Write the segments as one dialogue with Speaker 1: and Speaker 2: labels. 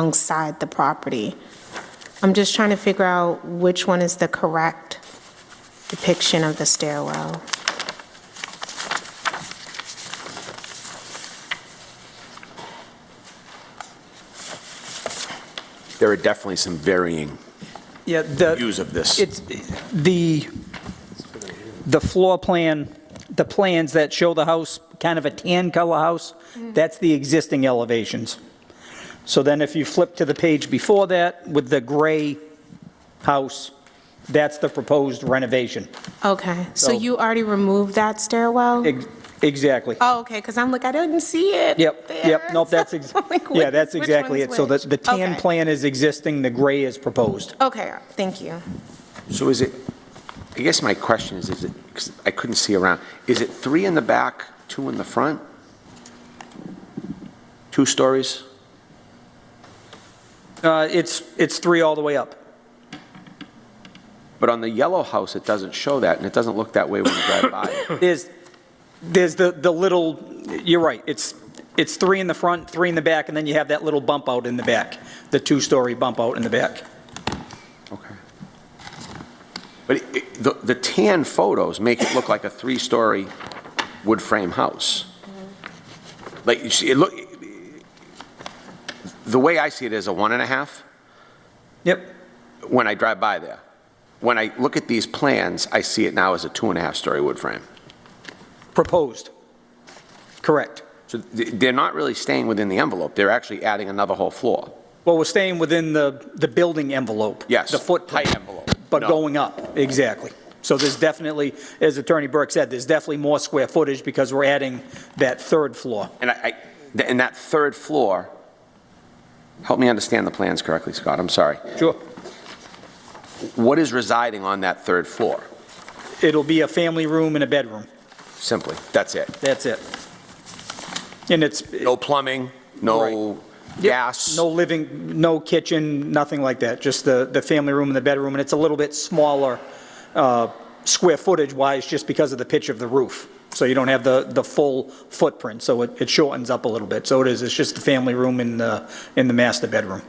Speaker 1: alongside the property. I'm just trying to figure out which one is the correct depiction of the stairwell.
Speaker 2: There are definitely some varying
Speaker 3: Yeah, the,
Speaker 2: views of this.
Speaker 3: it's, the, the floor plan, the plans that show the house, kind of a tan color house,
Speaker 1: Mm-hmm.
Speaker 3: that's the existing elevations. So then if you flip to the page before that with the gray house, that's the proposed renovation.
Speaker 1: Okay, so
Speaker 3: So-
Speaker 1: you already removed that stairwell?
Speaker 3: Ex- Exactly.
Speaker 1: Oh, okay, because I'm like, I didn't see it.
Speaker 3: Yep, yep,
Speaker 1: there.
Speaker 3: nope, that's, ex-
Speaker 1: I'm like,
Speaker 3: yeah,
Speaker 1: which-
Speaker 3: that's
Speaker 1: which
Speaker 3: exactly
Speaker 1: one's
Speaker 3: it. So the,
Speaker 1: which?
Speaker 3: the tan
Speaker 1: Okay.
Speaker 3: plan is existing, the gray is proposed.
Speaker 1: Okay, thank you.
Speaker 2: So is it, I guess my question is, is it, 'cause I couldn't see around, is it three in the back, two in the front? Two stories?
Speaker 3: Uh, It's, it's three all the way up.
Speaker 2: But on the yellow house, it doesn't show that, and it doesn't look that way when you drive by.
Speaker 3: There's, there's the, the little, you're right, it's, it's three in the front, three in the back, and then you have that little bump out in the back, the two-story bump out in the back.
Speaker 2: Okay. But it- it- the the tan photos make it look like a three-story wood frame house. Like, you see, it look, the way I see it is a one and a half.
Speaker 3: Yep,
Speaker 2: when I drive by there. When I look at these plans, I see it now as a two and a half story wood frame.
Speaker 3: proposed. Correct.
Speaker 2: So th- they're not really staying within the envelope, they're actually adding another whole floor.
Speaker 3: Well, we're staying within the, the building envelope.
Speaker 2: Yes.
Speaker 3: The footprint.
Speaker 2: Height envelope.
Speaker 3: But
Speaker 2: No.
Speaker 3: going up, exactly. So there's definitely, as Attorney Burke said, there's definitely more square footage because we're adding that third floor.
Speaker 2: And I, I- th- and that third floor, help me understand the plans correctly, Scott, I'm sorry.
Speaker 3: Sure.
Speaker 2: What is residing on that third floor?
Speaker 3: It'll be a family room and a bedroom.
Speaker 2: Simply, that's it.
Speaker 3: That's it. And it's,
Speaker 2: No plumbing, no
Speaker 3: Yep.
Speaker 2: gas?
Speaker 3: No living, no kitchen, nothing like that, just the, the family room and the bedroom, and it's a little bit smaller uh, square footage-wise, just because of the pitch of the roof. So you don't have the, the full footprint, so it it shortens up a little bit. So it is, it's just the family room and the, and the master bedroom.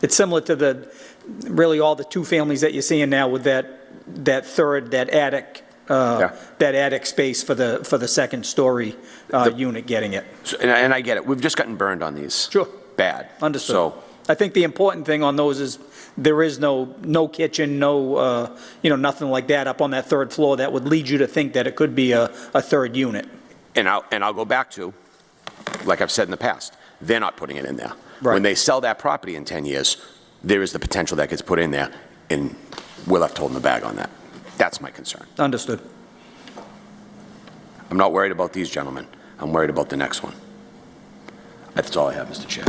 Speaker 3: It's similar to the, really all the two families that you're seeing now with that, that third, that attic,
Speaker 2: Yeah.
Speaker 3: uh, that attic space for the, for the second-story uh, unit getting it.
Speaker 2: So- And I, and I get it, we've just gotten burned on these.
Speaker 3: Sure.
Speaker 2: Bad.
Speaker 3: Understood.
Speaker 2: So,
Speaker 3: I think the important thing on those is there is no, no kitchen, no, uh, you know, nothing like that up on that third floor that would lead you to think that it could be a, a third unit.
Speaker 2: And I'll, and I'll go back to, like I've said in the past, they're not putting it in there. When
Speaker 3: Right.
Speaker 2: they sell that property in 10 years, there is the potential that gets put in there, and we're left holding the bag on that. That's my concern.
Speaker 3: Understood.
Speaker 2: I'm not worried about these gentlemen. I'm worried about the next one. That's all I have, Mr. Chair.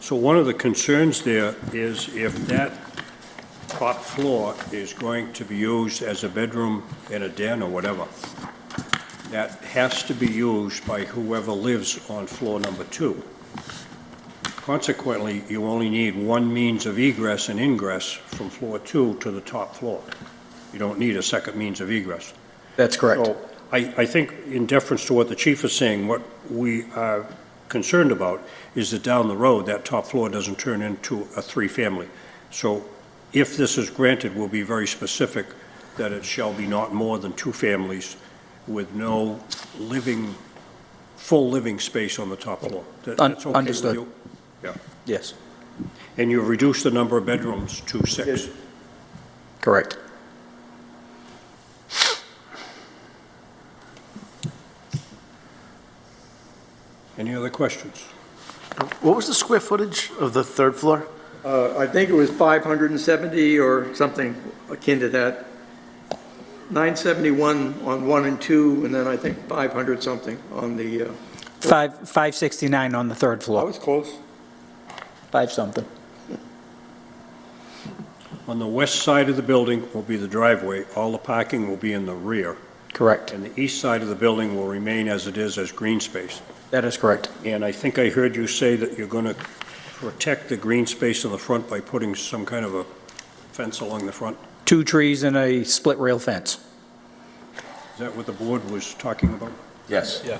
Speaker 4: So one of the concerns there is if that top floor is going to be used as a bedroom and a den or whatever, that has to be used by whoever lives on floor number two. Consequently, you only need one means of egress and ingress from floor two to the top floor. You don't need a second means of egress.
Speaker 3: That's
Speaker 4: So I, I think in deference to what the chief is saying, what we are concerned about is that down the road, that top floor doesn't turn into a three-family. So if this is granted, we'll be very specific that it shall be not more than two families with no living, full living space on the top floor. That-
Speaker 3: Un-
Speaker 4: that's okay with
Speaker 3: understood.
Speaker 4: you? Yeah.
Speaker 3: Yes,
Speaker 4: And you've reduced the number of bedrooms to six.
Speaker 3: correct.
Speaker 4: Any other questions?
Speaker 5: What was the square footage of the third floor?
Speaker 6: Uh, I think it was 570 or something akin to that. 971 on one and two, and then I think 500 something on the, uh,
Speaker 3: Five, 569 on the third floor,
Speaker 6: close.
Speaker 3: five something.
Speaker 4: On the west side of the building will be the driveway. All the parking will be in the rear.
Speaker 3: Correct,
Speaker 4: And the east side of the building will remain as it is, as green space.
Speaker 3: that is correct.
Speaker 4: And I think I heard you say that you're going to protect the green space in the front by putting some kind of a fence along the front.
Speaker 3: Two trees and a split rail fence.
Speaker 4: Is that what the board was talking about?
Speaker 2: Yes.
Speaker 4: Yeah.